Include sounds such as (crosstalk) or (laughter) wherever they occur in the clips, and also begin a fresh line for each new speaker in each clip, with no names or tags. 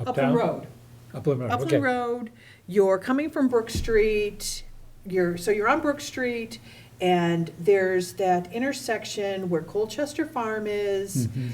Upland
Uptown?
Road.
Upland Road,
Upland
okay.
Road, you're coming from Brook Street, you're, so you're on Brook Street, and there's that intersection where Colchester Farm is.
Mhm.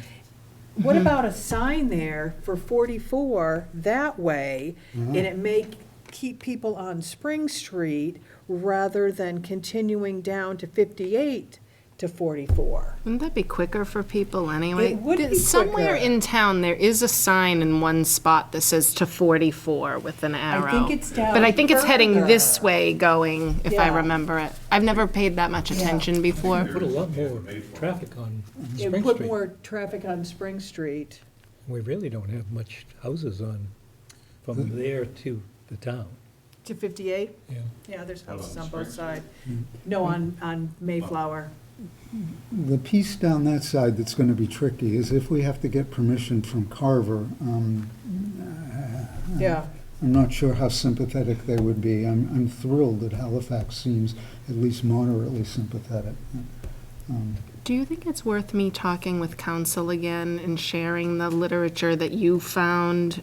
What
Mm-hmm.
about a sign there for 44 that way,
Mm-hmm.
and it may keep people on Spring Street rather than continuing down to 58 to 44?
Wouldn't that be quicker for people anyway?
It would
Did-
be
Somewhere
quicker.
in town, there is a sign in one spot that says to 44 with an arrow.
think it's down
But I think it's heading this
further.
way going, if I
Yeah.
remember it. I've never paid that much attention before.
Put a lot more traffic on
It
Spring
put
Street.
more traffic on Spring Street.
We really don't have much houses on, from there to the town,
To 58?
yeah.
Mm-hmm. Yeah, there's
How about
houses on
on
both
Spring
sides. No, on, on Mayflower.
The piece down that side that's going to be tricky is if we have to get permission from Carver, um,
Yeah,
I'm not sure how sympathetic they would be. I'm, I'm thrilled that Halifax seems at least moderately sympathetic. Um,
Do you think it's worth me talking with council again and sharing the literature that you found?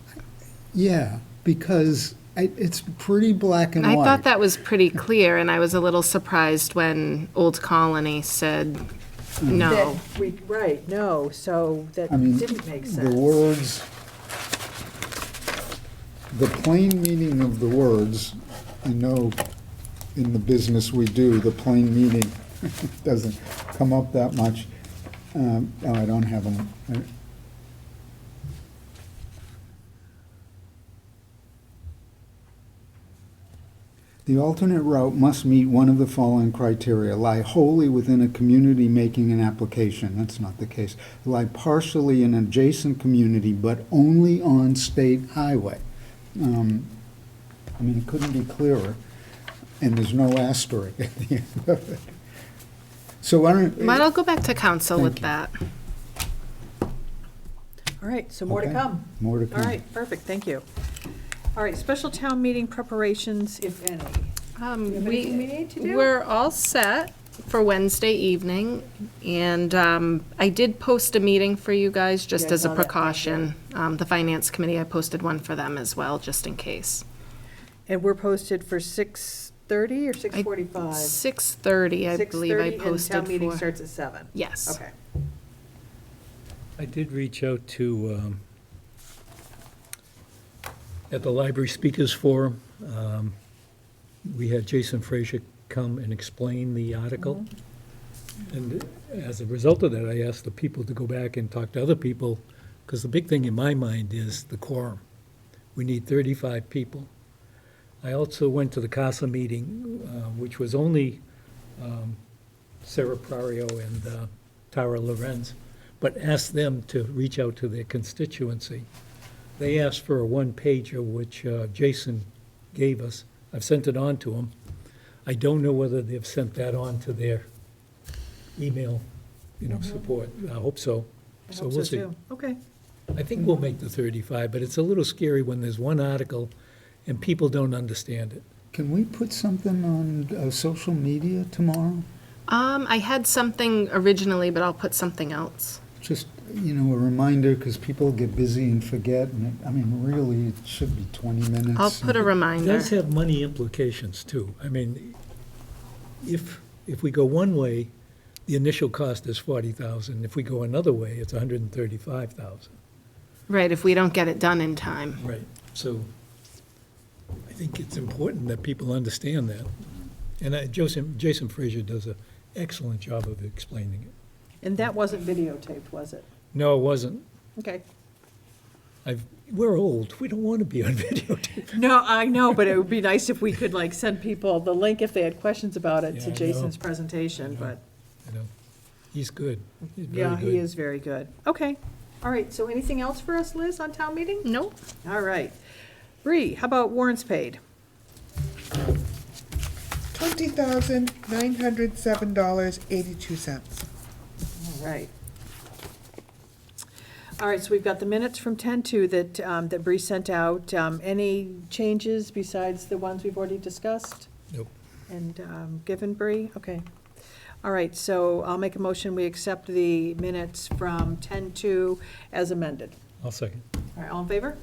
Yeah, because I- it's pretty black and
I
white.
thought that was pretty clear, and I was a little surprised when Old Colony said no.
that, we, right, no, so that
I mean,
didn't make
The
sense.
words, the plain meaning of the words, I know in the business we do, the plain meaning (laughs) doesn't come up that much. Um, Oh, I don't have them. I- The alternate route must meet one of the following criteria, lie wholly within a community making an application, that's not the case, lie partially in adjacent community, but only on state highway. Um, I mean, it couldn't be clearer, and there's no asterisk at the end of it. So why don't,
Might I'll go back to council with
Thank you.
that.
All right, so more to
Okay. Mm.
come.
more to
All
come.
right, perfect, thank you. All right, special town meeting preparations, if any.
Um,
You have anything we need to do?
We're all set for Wednesday evening, and um, I did post a meeting for you guys
Yeah,
just
I
as a
saw that, thank
precaution. Um, The Finance Committee, I posted one for them as well, just in case.
And we're posted for 6:30 or 6:45?
6:30, I believe
6:30,
I
and
posted
Town meeting
for.
starts at 7.
Yes.
Okay.
I did reach out to, um, at the Library Speakers Forum, um, we had Jason Frazier come and explain the article.
Mm-hmm.
And as a result of that, I asked the people to go back and talk to other people, because the big thing in my mind is the quorum. We need 35 people. I also went to the CASA meeting, uh, which was only um, Sarah Prario and uh, Tara Lorenz, but asked them to reach out to their constituency. They asked for a one-pager, which uh, Jason gave us. I've sent it on to them. I don't know whether they've sent that on to their email, you know, support. I hope so.
Mm-hmm. I
So
hope
we'll see.
too. Okay.
I think we'll make the 35, but it's a little scary when there's one article and people don't understand it.
Can we put something on uh, social media tomorrow?
Um, I had something originally, but I'll put something else.
Just, you know, a reminder, because people get busy and forget, and, it- I mean, really, it should be 20 minutes.
I'll put a
It
reminder.
does have money implications, too. I mean, if, if we go one way, the initial cost is 40,000. If we go another way, it's 135,000.
Right, if we don't get it done in time.
Right. So I think it's important that people understand that. And I- Jason, Jason Frazier does an excellent job of explaining it.
And that wasn't videotaped, was it?
No, it wasn't.
Okay.
I've, we're old. We don't want to be on (laughs) videotape.
No, I know, but it would be nice if we could like send people the link if they had questions about it
Yeah, I
to
know.
Jason's presentation,
Yeah.
but.
You know, he's good. He's very
Yeah, he
good.
is very good. Okay. All right, so anything else for us, Liz, on town meeting?
Nope.
All right. Bree, how about warrants paid?
twenty thousand nine hundred seven dollars eighty-two cents.
All right. All right, so we've got the minutes from 10-2 that, um, that Bree sent out. Um, Any changes besides the ones we've already discussed?
Nope.
And um, given Bree? Okay. All right, so I'll make a motion, we accept the minutes from 10-2 as amended.
I'll second.
All right, all in favor?